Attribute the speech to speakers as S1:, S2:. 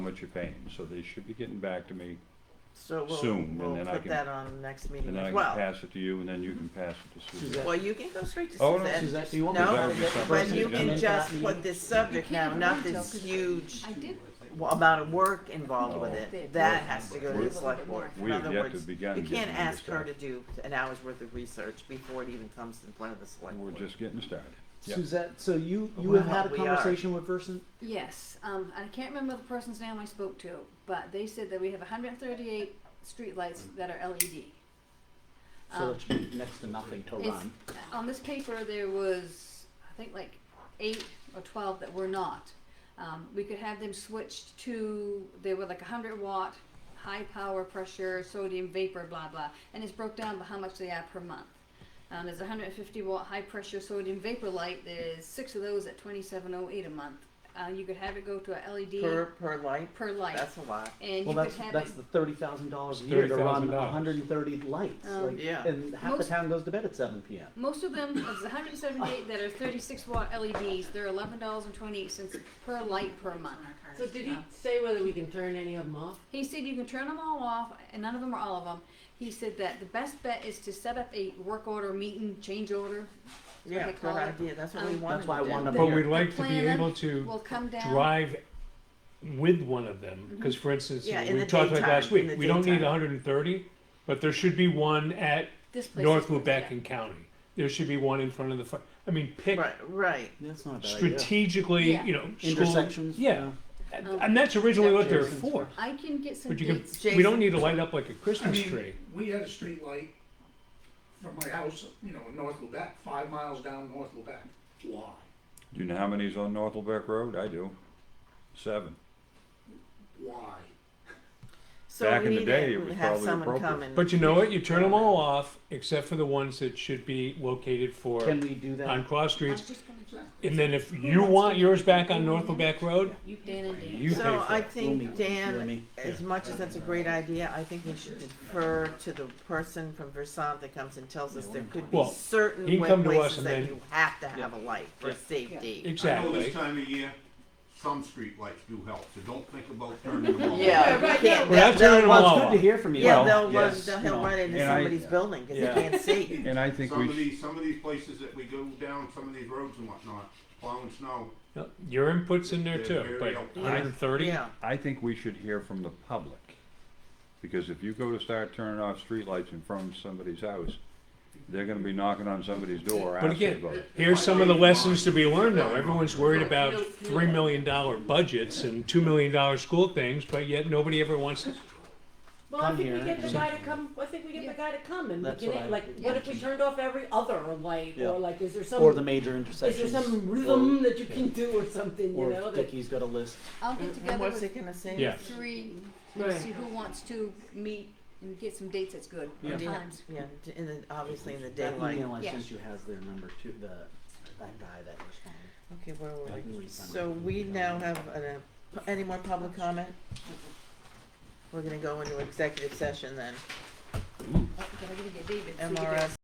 S1: much you're paying, so they should be getting back to me,
S2: So we'll,
S1: Soon, and
S2: we'll
S1: then I
S2: put
S1: can-
S2: that on next meeting
S1: and then I
S2: as
S1: can
S2: well.
S1: pass it to you, and then you can pass it to Suzanne.
S3: Suzanne.
S2: Well, you can go straight to
S1: Oh, no,
S2: Suzette.
S3: Suzette, do you want
S1: me to- That
S2: No,
S1: would be something.
S2: but you
S1: Yeah.
S2: can just put this subject now, not this huge
S4: I did,
S2: w- amount of work involved with
S4: No.
S2: it. That has to go to
S1: We-
S2: the select board.
S1: we
S2: In
S1: have
S2: other
S1: yet to
S2: words,
S1: begin
S2: You
S1: getting
S2: can't
S1: into
S2: ask her to
S1: that.
S2: do an hour's worth of research before it even comes in front of the select
S1: We're
S2: board.
S1: just getting started. Yeah.
S3: Suzette, so you, you
S2: Wow,
S3: have had a
S2: we are.
S3: conversation with Versant?
S4: yes, um, I can't remember the person's name I spoke to, but they said that we have hundred and thirty-eight streetlights that are LED.
S3: So
S4: Um,
S3: that's next to nothing to
S4: It's,
S3: run.
S4: on this paper, there was, I think like eight or twelve that were not. Um, we could have them switched to, they were like a hundred watt, high power pressure, sodium vapor, blah, blah. And it's broke down by how much they are per month. Um, there's a hundred and fifty watt high pressure sodium vapor light, there's six of those at twenty-seven oh eight a month. Uh, you could have it go to a LED
S2: Per,
S4: per,
S2: per light,
S4: light.
S2: that's a lot.
S4: And
S3: Well,
S4: you
S3: that's,
S4: could have
S3: that's
S4: it,
S3: the thirty thousand dollars a year to run
S1: $30,000.
S3: hundred and thirty lights,
S5: Oh.
S4: Um,
S3: like,
S2: Yeah.
S3: and half the
S4: Most-
S3: town goes to bed at seven PM.
S4: Most of them, of the 178 that are 36 watt LEDs, they're $11.28 per light per month.
S5: So did he say whether we can turn any of them off?
S4: He said you can turn them all off, and none of them are all of them. He said that the best bet is to set up a work order meeting, change order. is what
S2: Yeah,
S4: they
S2: good
S4: call it.
S2: idea, that's what we
S4: Um,
S2: wanted
S3: That's why I
S2: to do.
S3: wanted
S6: But
S3: Yeah.
S6: we'd like to be
S4: Plan
S6: able to
S4: Will come down.
S6: drive with one of them,
S4: Mm-hmm.
S6: because for instance,
S2: Yeah, in
S6: we
S2: the
S6: talked about last
S2: daytime, in
S6: week,
S2: the
S6: we don't
S2: daytime.
S6: need hundred and thirty, but there should be one at
S4: This place
S6: North
S4: is- yeah.
S6: Lubeck County. There should be one in front of the, fi- I mean, pick
S2: Right, right.
S3: That's not a bad idea.
S6: strategically,
S4: Yeah.
S6: you know, school-
S3: Intersections?
S6: Yeah,
S4: Um,
S6: and that's originally what they're
S3: Intersections.
S6: for,
S4: I can get some
S6: but you can,
S4: dates.
S6: we don't need to light up like a Christmas
S7: I mean,
S6: tree.
S7: We had a street light from my house, you know, in North Lubeck, five miles down North Lubeck. Why?
S1: Do you know how many's on North Lubeck Road? I do. Seven.
S7: Why?
S2: So
S1: Back
S2: we
S1: in the
S2: need
S1: day, it
S2: to
S1: was
S2: have
S1: probably
S2: someone come
S1: appropriate.
S2: and.
S6: But you know what, you turn them all off, except for the ones that should be located for,
S3: Can we do
S6: on
S3: that?
S6: cross
S4: I'm
S6: streets.
S4: just gonna keep
S6: And then if you want yours back on North Lubeck Road,
S4: Dan and Dan.
S6: you pay
S2: So
S6: for
S2: I
S6: it.
S3: We'll meet
S2: think,
S3: with
S2: Dan,
S3: Jeremy.
S2: as much as that's a great idea, I think we should defer to the person from Versant that comes and tells us there could be
S6: Well,
S2: certain
S6: he can
S2: wa-
S6: come to us
S2: places
S6: and
S2: that
S6: then-
S2: you have to have a
S3: Yeah.
S2: light for
S3: Yeah.
S2: safety.
S8: I know
S6: Exactly.
S8: this time of year, some streetlights do help, so don't think about turning them off.
S2: Yeah,
S5: right,
S2: you
S5: yeah.
S2: can't-
S6: We're not
S2: they'll-
S6: turning them
S3: Well,
S6: all
S3: it's good to
S6: off.
S3: hear from you.
S2: Yeah,
S3: Well,
S2: they'll run,
S3: yes,
S2: they'll
S3: you
S2: he'll
S3: know.
S2: run into
S1: And I-
S2: somebody's building because
S6: Yeah.
S2: they can't see.
S1: And I think
S8: Some
S1: we
S8: of
S1: should,
S8: these, some of these places that we go down, some of these roads and whatnot, plowing snow,
S6: No, Your input's in there
S8: They're
S6: too,
S8: very
S6: but
S8: helpful.
S6: hundred and thirty,
S2: Yeah,
S1: I think we should hear from the public. Because if you go to start turning off streetlights in front of somebody's house, they're gonna be knocking on somebody's door
S6: but
S1: asking
S6: again,
S1: about it.
S6: here's some of the lessons to be learned though, everyone's worried about three million dollar budgets and two million dollar school things, but yet nobody ever wants to.
S5: Well, I
S3: Come
S5: think we
S3: here.
S5: get the guy to come, I think we get
S4: Yeah.
S5: the guy to come and we
S3: That's
S5: get
S3: what I
S5: it, like,
S3: would
S5: what if we
S3: imagine.
S5: turned off every other light?
S3: Yeah.
S5: Or like, is there
S3: Or the
S5: some,
S3: major
S5: is
S3: intersections.
S5: there some
S3: or-
S5: rhythm that you can do or something, you
S3: Or
S5: know?
S3: if
S5: that-
S3: Dickie's got a list.
S4: I'll get
S2: and
S4: together
S2: what's
S4: with
S2: it gonna say?
S6: Yeah.
S4: three, and
S5: Right.
S4: see who wants to meet and get some dates that's good,
S3: Yeah.
S4: times.
S2: Yeah, d- and then obviously in the
S3: That
S2: daylight.
S3: email I
S4: Yeah.
S3: sent you has their number too, the, that guy that responded.
S2: Okay, where were
S3: I can
S2: we?
S3: read some.
S2: So we now have, an, uh, any more public comment? We're gonna go into executive session then.
S4: Oh, gotta get David. so we can do-
S2: MRS